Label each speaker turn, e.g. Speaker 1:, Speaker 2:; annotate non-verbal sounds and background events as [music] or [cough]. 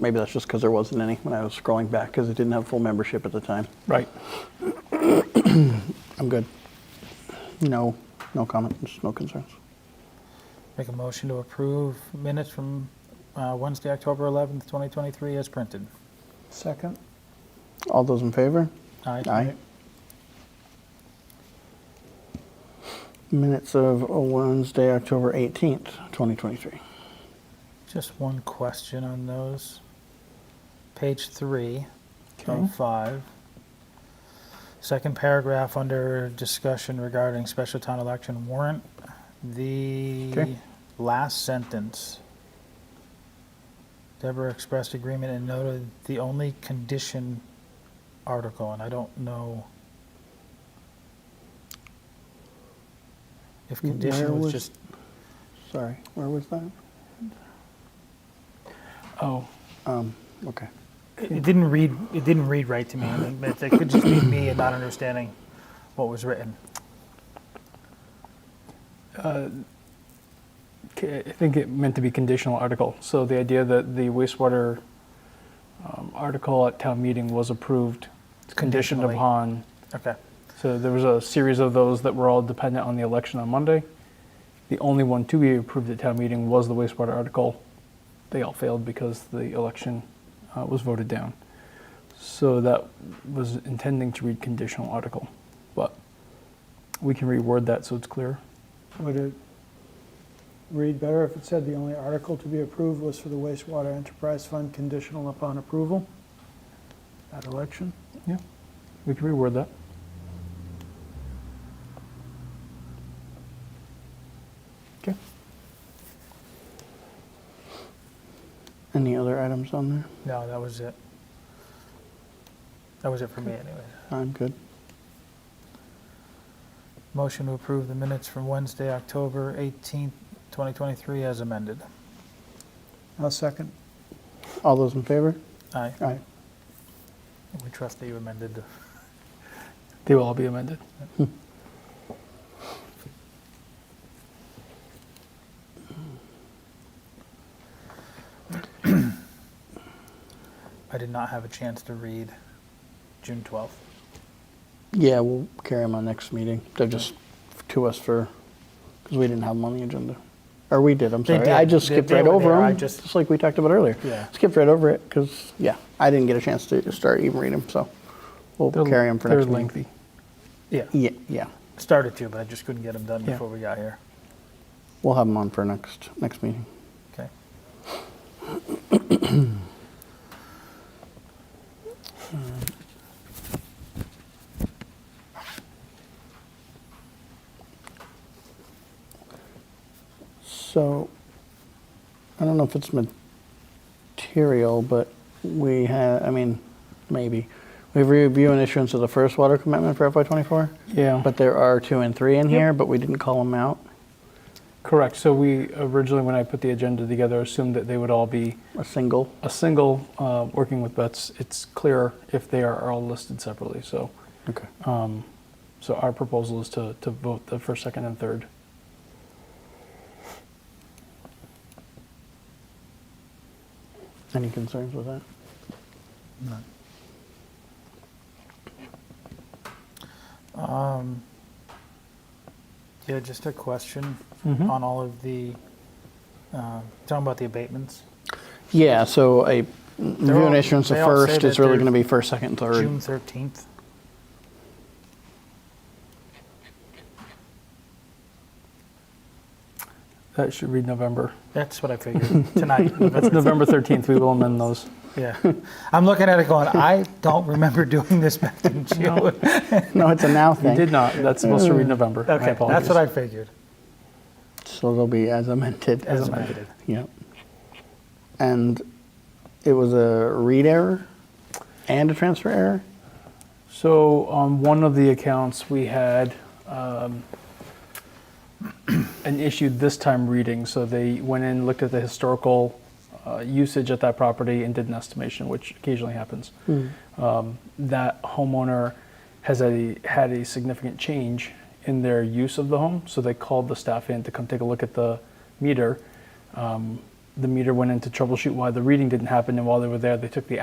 Speaker 1: Maybe that's just because there wasn't any when I was scrolling back, because it didn't have full membership at the time.
Speaker 2: Right.
Speaker 1: I'm good. No, no comments, no concerns.
Speaker 3: Make a motion to approve minutes from uh, Wednesday, October 11th, 2023 as printed.
Speaker 2: Second?
Speaker 1: All those in favor?
Speaker 3: Aye.
Speaker 1: Minutes of Wednesday, October 18th, 2023.
Speaker 3: Just one question on those. Page three
Speaker 1: Okay.
Speaker 3: of five. Second paragraph under discussion regarding special town election warrant. The
Speaker 1: Okay.
Speaker 3: last sentence. Deborah expressed agreement and noted the only condition article, and I don't know if
Speaker 1: Where
Speaker 3: condition
Speaker 1: was-
Speaker 3: was just
Speaker 1: Sorry, where was that?
Speaker 2: Oh,
Speaker 1: Um, okay.
Speaker 3: It it didn't read, it didn't read right to me. I mean, It it could just be me and not understanding what was written.
Speaker 2: K- I think it meant to be conditional article. So the idea that the wastewater um, article at town meeting was approved conditioned
Speaker 3: Conditionally.
Speaker 2: upon,
Speaker 3: Okay,
Speaker 2: so there was a series of those that were all dependent on the election on Monday. The only one to be approved at town meeting was the wastewater article. They all failed because the election uh, was voted down. So that was intending to read conditional article, but we can reword that so it's clear.
Speaker 4: Would it read better if it said the only article to be approved was for the wastewater enterprise fund conditional upon approval at election?
Speaker 2: Yeah, we can reword that. Okay.
Speaker 1: Any other items on there?
Speaker 3: no, that was it. That was it for me anyway.
Speaker 1: I'm good.
Speaker 3: Motion to approve the minutes from Wednesday, October 18th, 2023 as amended.
Speaker 4: I'll second.
Speaker 1: All those in favor?
Speaker 3: Aye,
Speaker 1: Aye.
Speaker 3: we trust that you amended. the-
Speaker 2: They will all be amended.
Speaker 3: I did not have a chance to read June 12th.
Speaker 1: Yeah, we'll carry them on next meeting. They're just to us for, because we didn't have them on the agenda. Or we did, I'm
Speaker 3: They
Speaker 1: sorry. I
Speaker 3: did.
Speaker 1: just
Speaker 3: They-
Speaker 1: skipped
Speaker 3: they
Speaker 1: right
Speaker 3: were
Speaker 1: over
Speaker 3: there. I
Speaker 1: them,
Speaker 3: just-
Speaker 1: just like we talked about earlier.
Speaker 3: Yeah.
Speaker 1: Skipped right over it, because, yeah, I didn't get a chance to start even reading them, so we'll
Speaker 2: They're-
Speaker 1: carry them for next
Speaker 2: They're
Speaker 1: meeting.
Speaker 2: lengthy.
Speaker 3: Yeah,
Speaker 1: Yeah, yeah.
Speaker 3: started to, but I just couldn't get them done
Speaker 2: Yeah.
Speaker 3: before we got here.
Speaker 1: We'll have them on for next, next meeting.
Speaker 3: Okay.
Speaker 1: So, I don't know if it's material, but we have, I mean, maybe. We have review and issuance of the first water commitment for FY '24,
Speaker 2: Yeah,
Speaker 1: but there are two and three in here, but we didn't call them out.
Speaker 2: correct. So we originally, when I put the agenda together, assumed that they would all be
Speaker 1: A single,
Speaker 2: a single, uh, working with Bets. It's clearer if they are all listed separately, so.
Speaker 1: okay.
Speaker 2: um, So our proposal is to, to vote the first, second, and third.
Speaker 1: Any concerns with that?
Speaker 3: None. Um, yeah, just a question
Speaker 2: Mhm.
Speaker 3: on all of the, uh, talking about the abatements,
Speaker 1: Yeah, so a review
Speaker 3: all-
Speaker 1: and issuance of
Speaker 3: they all say
Speaker 1: first
Speaker 3: that
Speaker 1: is really
Speaker 3: they're
Speaker 1: going to be first, second,
Speaker 3: June
Speaker 1: third.
Speaker 3: thirteenth.
Speaker 2: That should read November.
Speaker 3: That's what I figured, tonight. [laughs]
Speaker 2: That's November 13th. We will amend those.
Speaker 3: Yeah. I'm looking at it going, I don't remember doing this back in June.
Speaker 1: [laughs] No, it's a now
Speaker 2: We did
Speaker 1: thing.
Speaker 2: not. That's supposed to read November. I
Speaker 3: Okay, that's
Speaker 2: apologize.
Speaker 3: what I figured,
Speaker 1: So they'll be as amended.
Speaker 3: as amended.
Speaker 1: Yep. And it was a read error and a transfer error?
Speaker 2: So on one of the accounts, we had um, [clears throat] an issue this time reading. So they went in, looked at the historical uh, usage at that property and did an estimation, which occasionally happens. Um, That homeowner has a, had a significant change in their use of the home. So they called the staff in to come take a look at the meter. Um, the meter went in to troubleshoot why the reading didn't happen, and while they were there, they took the